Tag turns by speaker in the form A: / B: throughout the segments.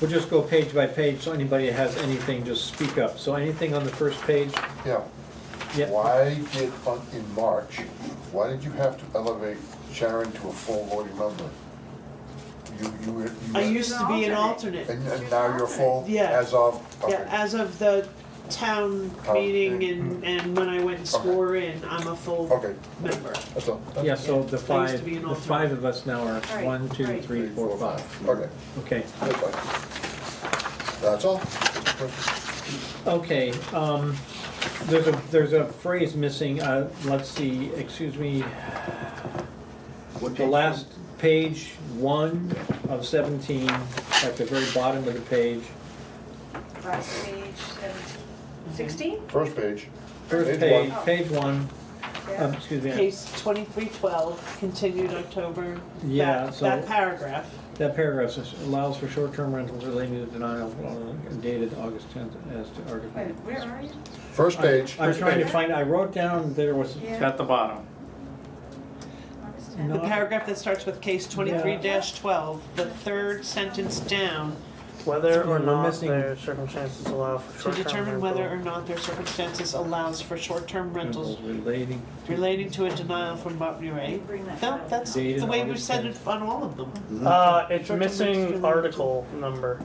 A: We'll just go page by page, so anybody that has anything, just speak up. So anything on the first page?
B: Yeah,
A: Yeah,
B: why did, on- in March, why did you have to elevate Sharon to a full voting member? You, you were, you
C: I
B: were,
C: used to be an alternate.
B: and, and now you're full
C: Yeah.
B: as of,
C: Yeah,
B: okay,
C: as of the town
B: Town
C: meeting
B: meeting.
C: and, and when I went and swore in, I'm a full
B: okay,
C: member.
B: that's all.
A: yeah, so the
C: Yeah, I used to
A: five,
C: be an
A: the
C: alternate.
A: five of us now are
D: Right,
A: one, two,
D: right.
A: three, four, five.
B: Okay,
A: Okay,
B: that's fine. That's all.
A: okay, um, there's a, there's a phrase missing, uh, let's see, excuse me,
E: What
A: the
E: page?
A: last page one of seventeen, at the very bottom of the page.
D: Last page, seventeen, sixteen?
B: First page.
A: First
B: one.
A: page, page one,
D: Oh.
A: um, excuse me,
C: Case twenty-three twelve, continued October,
A: Yeah,
C: that,
A: so-
C: that paragraph.
A: that paragraph says, allows for short-term rentals relating to denial uh, dated August tenth as to article.
D: Wait, where are you?
B: First page,
A: I'm trying to
D: page.
A: find, I wrote down, there was,
D: Yeah.
E: At the bottom.
D: August tenth.
C: The
A: No.
C: paragraph that starts with case twenty-three twelve, the third sentence down,
F: Whether or
A: We're
F: not
A: missing-
F: their circumstances allow for
C: to
F: short-term
C: determine whether or
F: rental.
C: not their circumstances allows for short-term rentals
A: relating
C: relating to a denial from Botany Ray.
D: Bring that
C: No,
D: back.
C: that's
A: Dated
C: the way we've
A: August
C: said it
A: 10th.
C: on all of them.
F: Uh, it's
C: Short-term rental.
F: missing article number,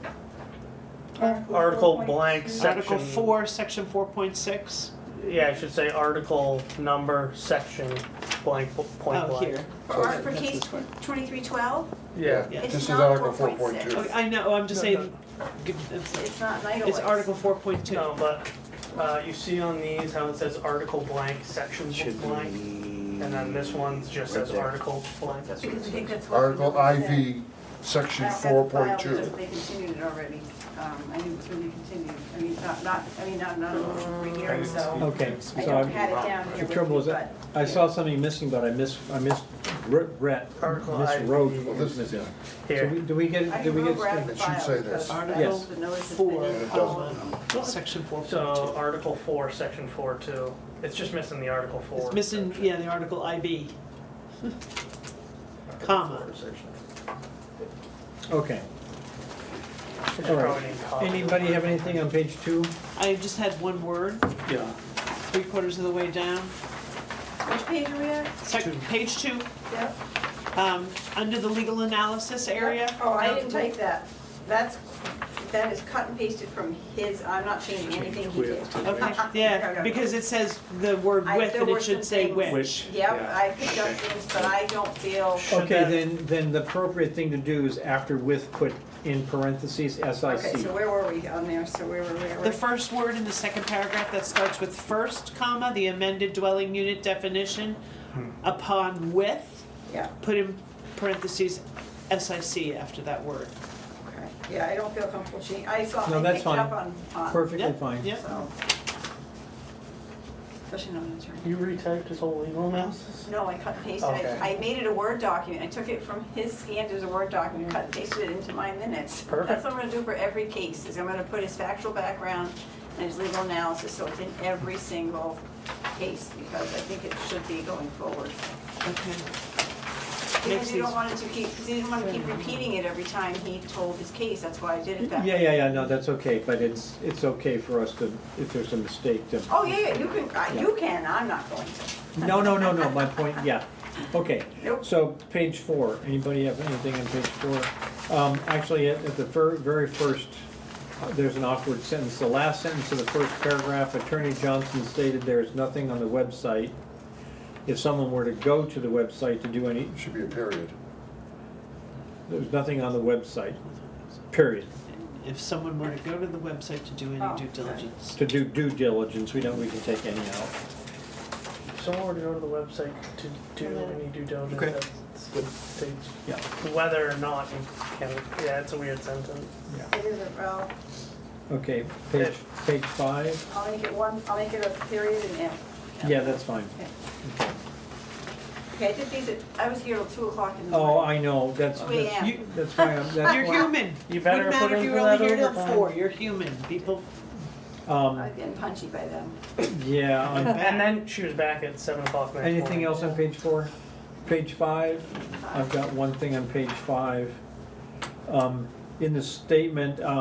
D: four
F: article
D: point
F: blank
D: two.
F: section.
C: Article four, section four point six.
F: Yeah, I should say article number, section, blank, po- point
C: Oh,
F: blank.
C: here.
D: For art- for case twenty-three twelve,
F: Yeah,
C: Yeah.
B: this
D: It's
B: is
D: not
B: Article four
D: 4.6.
B: point two.
C: Okay, Oh, I know, I'm just
F: No,
C: saying, g- it's-
D: it's not Night
C: it's Article four point two.
F: no, but, uh, you see on these how it says article blank, section
E: Should be.
F: blank? And then this one just
E: right
F: says
E: there.
F: article blank.
E: That's what it
D: Because I think
E: says.
D: that's what.
B: Article
D: we said.
B: IV,
D: I
B: section
D: have
B: four
D: the file
B: point
D: because
B: two.
D: They continued it already, um, I knew it was gonna be continued, I mean, not, not, I mean, not, not a rehearing, so
A: Okay,
D: I
A: so
D: don't
A: I,
D: have it down here
A: the
D: with
A: trouble is,
D: me,
A: that
D: but.
A: I saw something missing, but I miss, I missed, Brett,
F: Article IV.
A: miswrote what was
B: This-
A: missing. So we,
F: Here,
A: do we get,
D: I
A: do
D: can
A: we
D: go
A: get?
D: grab the
B: It should
D: file.
B: say this.
D: because I
C: Yes.
D: don't- The notice has
C: Four,
D: been in.
B: It doesn't.
C: um, section four
F: so
C: point
F: article four, section four two, it's just missing the article
C: two.
F: four.
C: It's missing,
F: section.
C: yeah, the Article IB. Comma.
A: Okay,
F: It's
A: All right.
F: probably comma.
A: anybody have anything on page two?
C: I just had one word,
E: Yeah.
C: three quarters of the way down.
D: Which page are we at?
C: Sec-
F: Two.
C: Page two,
D: Yep.
C: um, under the legal analysis area.
D: Oh, I didn't type that. That's, that is cut and pasted from his, I'm not changing anything he did.
C: Okay,
D: No, no,
C: yeah,
D: no.
C: because it says the word
D: I-
C: with
D: there
C: and
D: were
C: it should
D: some
C: say
D: things-
C: which.
E: Which-
D: Yep,
E: Yeah,
D: I picked up
E: okay.
D: things, but I don't feel,
F: Should
A: Okay,
F: that-
A: then, then the appropriate thing to do is after with, put in parentheses
D: okay,
A: SIC.
D: so where were we on there? So where were, where were?
C: The first word in the second paragraph that starts with first comma, the amended dwelling unit definition,
A: Hmm.
C: upon with,
D: Yeah,
C: put in parentheses SIC after that word.
D: okay. Yeah, I don't feel comfortable changing. I saw,
A: No,
D: I
A: that's
D: picked it
A: fine.
D: up on, on,
A: Perfectly
C: Uh, Yeah,
A: fine.
C: yeah.
D: so. Especially not an attorney.
F: You retyped his whole legal analysis?
D: No, I cut and pasted
F: Okay.
D: it. I made it a Word document. I took it from his scanned as a Word document, cut and pasted it into my minutes. That's
F: Perfect.
D: what I'm gonna do for every case, is I'm gonna put his factual background and his legal analysis, so it's in every single case, because I think it should be going forward.
C: Okay. Makes
D: Because you don't
C: these-
D: want it to keep, because you didn't wanna keep repeating it every time he told his case, that's why I did it that
A: Yeah,
D: way.
A: yeah, yeah, no, that's okay, but it's, it's okay for us to, if there's a mistake to.
D: Oh, yeah, yeah, you can, I- you can, I'm not going to.
A: No, no, no, no, my point, yeah, okay.
D: Nope.
A: So, page four, anybody have anything on page four? Um, actually, at, at the fir- very first, uh, there's an awkward sentence, the last sentence of the first paragraph, Attorney Johnson stated there is nothing on the website. If someone were to go to the website to do any,
B: Should be a period.
A: there's nothing on the website, period.
C: If someone were to go to the website to do
D: Oh,
C: any due
D: okay.
C: diligence.
A: To do due diligence, we don't, we can take any out.
F: Someone were to go to the website to do any due diligence,
A: Okay.
F: that's the page.
A: Yeah.
F: Whether or not you can, yeah, it's a weird sentence.
D: It is a, well,
A: Okay, page, page five,
D: I'll make it one, I'll make it a period and end.
A: yeah, that's fine.
D: Okay, I did these at, I was here till two o'clock in the morning.
A: Oh, I know, that's,
D: Two AM.
A: you- that's why, I'm- that's
C: You're
A: why-
C: human.
F: You better
C: Wouldn't
F: put
C: matter if
F: in
C: you
F: for
C: were only
F: that
C: here till
F: overtime.
C: four, you're human, people.
A: Um,
D: I've been punchy by then.
A: yeah, on-
F: And then she was back at seven o'clock next morning.
A: anything else on page four? Page five, I've got one thing on page five. Um, in the statement, um,